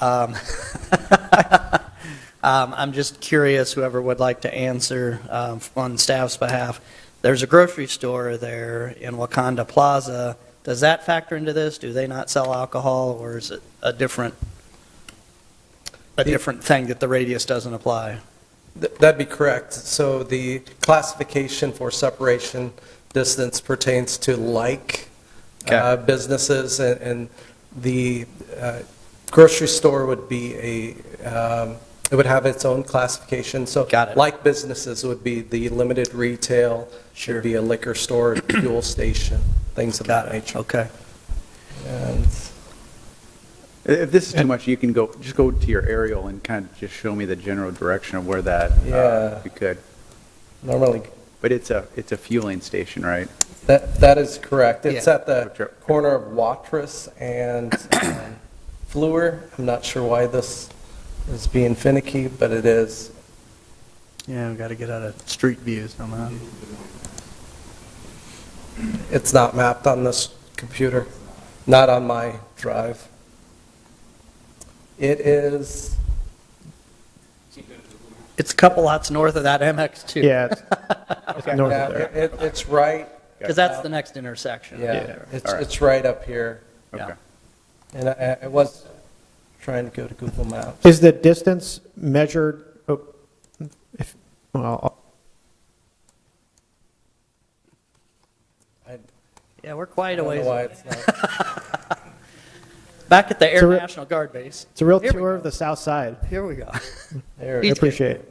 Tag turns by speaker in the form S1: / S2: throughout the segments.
S1: Um, um, I'm just curious, whoever would like to answer um, on staff's behalf. There's a grocery store there in Wakanda Plaza. Does that factor into this? Do they not sell alcohol, or is it a different, a different thing that the radius doesn't apply?
S2: Th- That'd be correct. So the classification for separation distance pertains to like
S1: Okay.
S2: uh, businesses, and- and the uh, grocery store would be a, um, it would have its own classification. So
S1: Got it.
S2: like businesses would be the limited retail,
S1: Sure.
S2: should be a liquor store, fuel station, things of that
S1: Got it,
S2: nature.
S1: okay.
S2: And
S3: If this is too much, you can go, just go to your aerial and kind of just show me the general direction of where that, uh,
S2: Yeah.
S3: if you could.
S2: Normally,
S3: But it's a, it's a fueling station, right?
S2: that, that is correct. It's
S1: Yeah.
S2: at the corner of Watrous and um, Fleur. I'm not sure why this is being finicky, but it is.
S1: Yeah, we got to get out of street view somehow.
S2: It's not mapped on this computer, not on my drive. It is,
S1: It's a couple lots north of that MX2.
S4: Yeah. it's- it's north
S2: yeah,
S4: of there.
S2: it- it- it's right,
S1: Because that's the next intersection.
S2: yeah, it's,
S3: All right.
S2: it's right up here.
S1: Yeah.
S3: Okay.
S2: And I, I was trying to go to Google Maps.
S4: Is the distance measured, oh, if, well,
S2: I
S1: Yeah, we're quite
S2: I
S1: a
S2: don't know
S1: ways.
S2: why it's not.
S1: Back at the Air
S4: So we're-
S1: National Guard Base.
S4: it's a real
S1: Here we
S4: tour of
S1: go.
S4: the south side.
S1: Here we go.
S2: There
S4: I
S2: it is.
S4: appreciate it.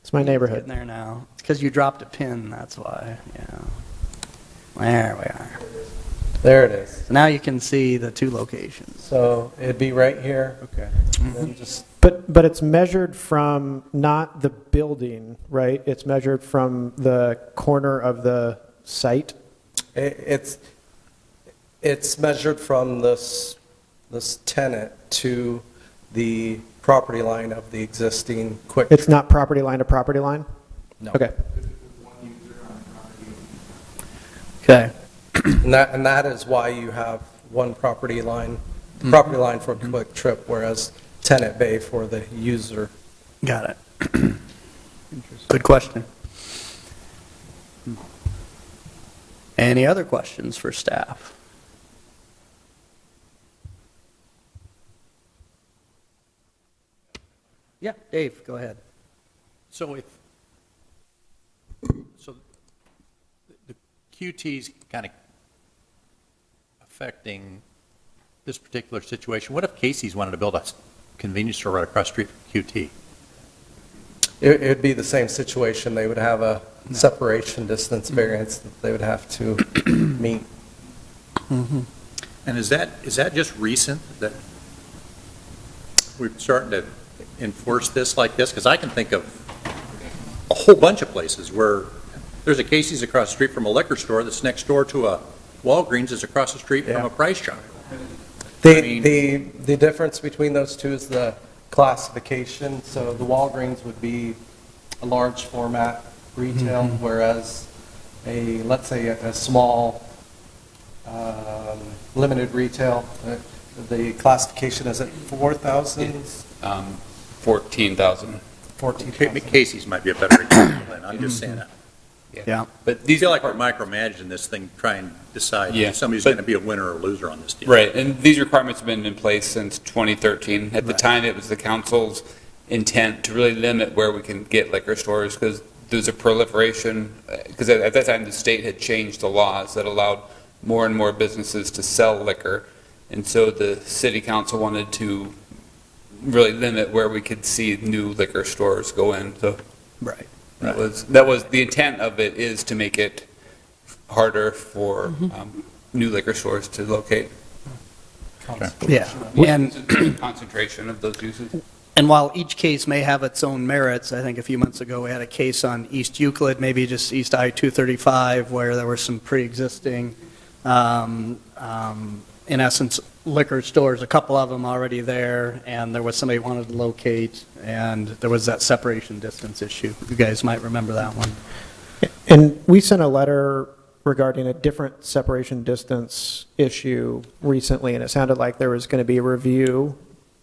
S4: It's my
S1: Getting
S4: neighborhood.
S1: there now. It's because you dropped a pin, that's why, yeah. There we are.
S2: There it is.
S1: So now you can see the two locations.
S2: So it'd be right here.
S3: Okay.
S2: And then just,
S4: But, but it's measured from not the building, right? It's measured from the corner of the site?
S2: i- it's, it's measured from this, this tenant to the property line of the existing quick.
S4: It's not property line to property line?
S2: No.
S4: Okay.
S1: Okay.
S2: And that, and that is why you have one property line, property line for quick trip, whereas tenant bay for the user.
S1: Got it. Good question. Hmm. Any other questions for staff? Yeah, Dave, go ahead.
S5: So if, so the QT's kind of affecting this particular situation. What if Casey's wanted to build a s- convenience store right across the street from QT?
S2: It, it'd be the same situation. They would have a separation distance variance that they would have to meet.
S5: And is that, is that just recent that we're starting to enforce this like this? Because I can think of a whole bunch of places where there's a Casey's across the street from a liquor store that's next door to a Walgreens that's across the street from
S2: Yeah.
S5: a Price Chopper. I
S2: The,
S5: mean-
S2: the, the difference between those two is the classification. So the Walgreens would be a large format retail,
S5: Mm-hmm.
S2: whereas a, let's say, a a small, um, limited retail, uh, the classification is at 4,000,
S6: um, 14,000.
S2: 14,000.
S5: Casey's might be a better example, and I'm just saying that.
S1: Yeah.
S6: But
S5: I
S6: these,
S5: feel like we're micromanaging this thing, trying to decide
S6: Yeah,
S5: if somebody's
S6: but-
S5: going to be a winner or loser on this deal.
S6: right, and these requirements have been in place since 2013. At the time, it was the council's intent to really limit where we can get liquor stores because there's a proliferation, because at at that time, the state had changed the laws that allowed more and more businesses to sell liquor. And so the city council wanted to really limit where we could see new liquor stores go in. So
S1: Right.
S6: That was, that was, the intent of it is to make it harder for um, new liquor stores to locate.
S1: Yeah. And
S6: Concentration of those uses.
S1: And while each case may have its own merits, I think a few months ago, we had a case on East Euclid, maybe just East I-235, where there were some pre-existing, um, um, in essence, liquor stores, a couple of them already there, and there was somebody wanted to locate, and there was that separation distance issue. You guys might remember that one.
S4: And we sent a letter regarding a different separation distance issue recently, and it sounded like there was going to be a review